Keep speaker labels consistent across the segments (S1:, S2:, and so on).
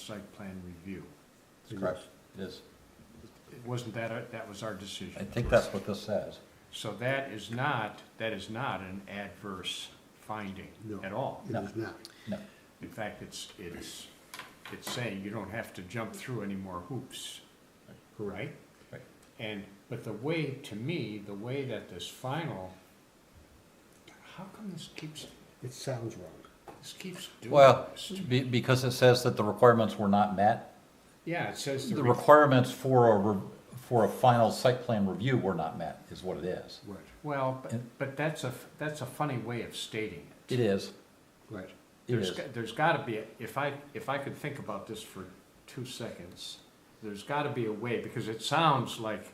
S1: site plan review.
S2: Correct.
S3: It is.
S1: It Wasn't that, our- that was our decision?
S3: I think that's what this says.
S1: So that is not, that is not an adverse finding
S2: No.
S1: at all.
S2: It is not.
S3: No,
S1: In fact, it's, it's, it's saying you don't have to jump through any more hoops, right?
S3: Right.
S1: And, but the way, to me, the way that this final, how come this keeps,
S2: It sounds wrong.
S1: this keeps doing
S3: well,
S1: this?
S3: be, because it says that the requirements were not met.
S1: Yeah, it says the.
S3: The
S1: re-
S3: requirements for a, re- for a final site plan review were not met, is what it is.
S2: Right,
S1: Well, but, but that's a, that's a funny way of stating it.
S3: It is,
S2: right.
S3: it
S1: There's,
S3: is.
S1: go- there's gotta be, a- if I, if I could think about this for two seconds, there's gotta be a way, because it sounds like,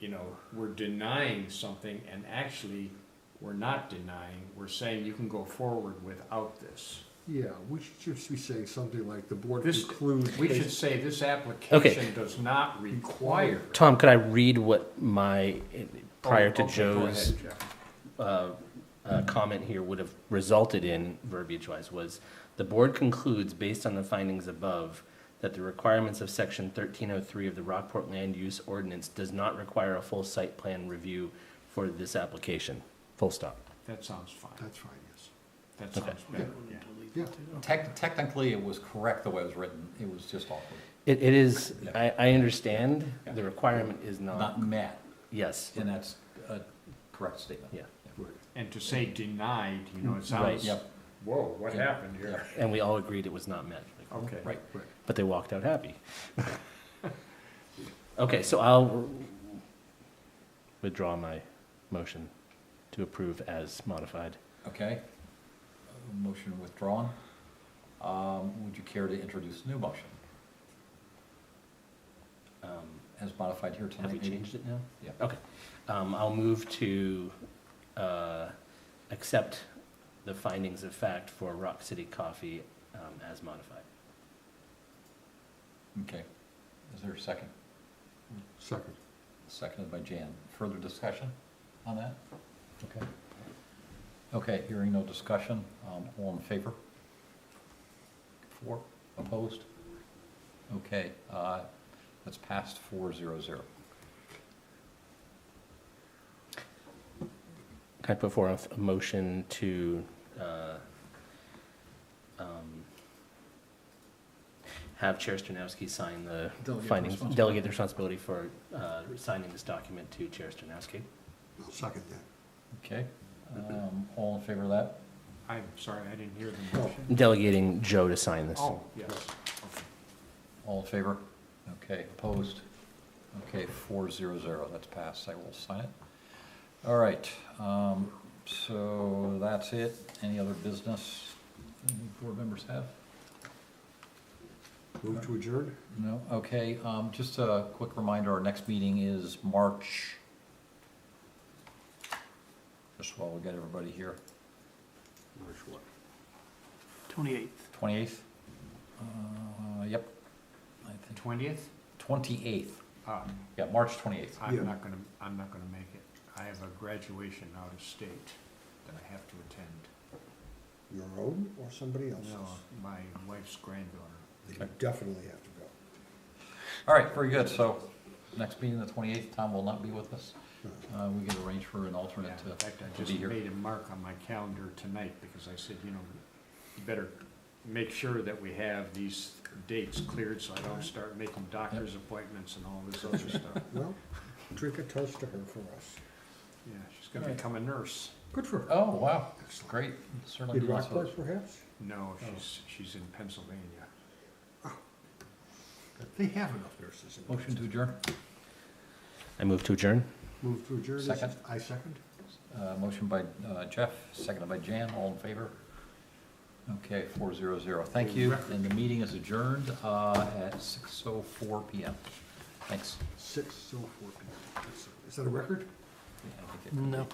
S1: you know, we're denying something, and actually, we're not denying, we're saying you can go forward without this.
S2: Yeah, we should just be saying something like the board
S1: This-
S2: concludes.
S1: We
S2: based-
S1: should say this application does not require.
S4: Tom, could I read what my, prior to
S1: Oh, okay, go
S4: Joe's
S1: ahead, Jeff.
S4: uh, uh, comment here would have resulted in, verbiage-wise, was, "The board concludes, based on the findings above, that the requirements of Section 1303 of the Rockport Land Use Ordinance does not require a full site plan review for this application." Full stop.
S1: That sounds fine,
S2: That's fine, yes.
S1: that sounds better, yeah.
S2: Yeah,
S3: Tec- Technically, it was correct the way it was written. It was just awkward.
S4: It it is,
S3: Yeah.
S4: I I understand,
S3: Yeah.
S4: the requirement is not,
S3: Not met,
S4: yes,
S3: and that's a correct statement.
S4: yeah.
S2: right.
S1: And to say denied, you know, it
S4: Right.
S1: sounds,
S3: Yep.
S1: whoa, what
S3: Yeah.
S1: happened here?
S4: And we all agreed it was not met.
S1: Okay.
S3: Right.
S4: but they walked out happy. Okay, so I'll withdraw my motion to approve as modified.
S3: Okay. Motion withdrawn. Um, Would you care to introduce new motion
S4: Um,
S3: as modified here tonight?
S4: Have we
S3: maybe?
S4: changed it now?
S3: Yeah.
S4: Okay, um, I'll move to, uh, accept the findings of fact for Rock City Coffee, um, as modified.
S3: Okay. Is there a second?
S2: Second.
S3: Seconded by Jan. Further discussion on that? Okay. Okay, hearing no discussion, um, all in favor? Four, opposed? Okay, uh, that's passed four zero zero.
S4: Can I put forth a motion to, uh, um, have Chair Stronowski sign the
S3: Delegate
S4: findings,
S3: responsibility.
S4: delegate the responsibility for, uh, signing this document to Chair Stronowski?
S2: I'll second that.
S3: Okay, um, all in favor of that?
S1: I'm sorry, I didn't hear the motion.
S4: Delegating Joe to sign this.
S1: Oh, yes.
S3: All in favor? Okay, opposed? Okay, four zero zero, that's passed, I will sign it. All right, um, so that's it. Any other business any board members have?
S2: Move to adjourn?
S3: No, okay, um, just a quick reminder, our next meeting is March. Just while we get everybody here,
S2: March what?
S5: Twenty-eighth.
S3: twenty-eighth? Uh, yep, I think,
S1: Twentieth?
S3: twenty-eighth,
S1: Uh,
S3: yeah, March twenty-eighth.
S2: Yeah.
S1: I'm not gonna, I'm not gonna make it. I have a graduation out of state that I have to attend.
S2: Your own or somebody else's?
S1: No, my wife's granddaughter.
S2: Then You definitely have to go.
S3: All right, very good, so next meeting, the twenty-eighth, Tom will not be with us. Uh, we can arrange for an
S1: Yeah,
S3: alternate
S1: In
S3: to,
S1: fact, I
S3: to
S1: just
S3: be here.
S1: made a mark on my calendar tonight because I said, you know, you better make sure that we have these dates cleared so I don't start making doctor's appointments and all this other stuff.
S2: Well, drink a toast to her for us.
S1: Yeah, she's gonna become a nurse.
S2: Good for her.
S3: Oh, wow, that's great, certainly.
S2: In
S3: give us
S2: Rockport,
S3: those.
S2: perhaps?
S1: No,
S3: Oh.
S1: she's, she's in Pennsylvania.
S2: They have enough nurses. in
S3: Motion to
S2: Rochester.
S3: adjourn,
S4: I move to adjourn?
S2: Move to adjourn? is it?
S3: Second.
S2: I second.
S3: uh, motion by, uh, Jeff, seconded by Jan, all in favor? Okay, four zero zero, thank you, and the meeting is adjourned, uh, at six oh four P M. Thanks.
S2: Six, so four people. Is that a record?
S3: Yeah, I think it-
S5: No.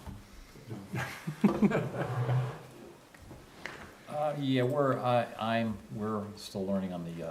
S3: Uh, yeah, we're, I, I'm, we're still learning on the, uh,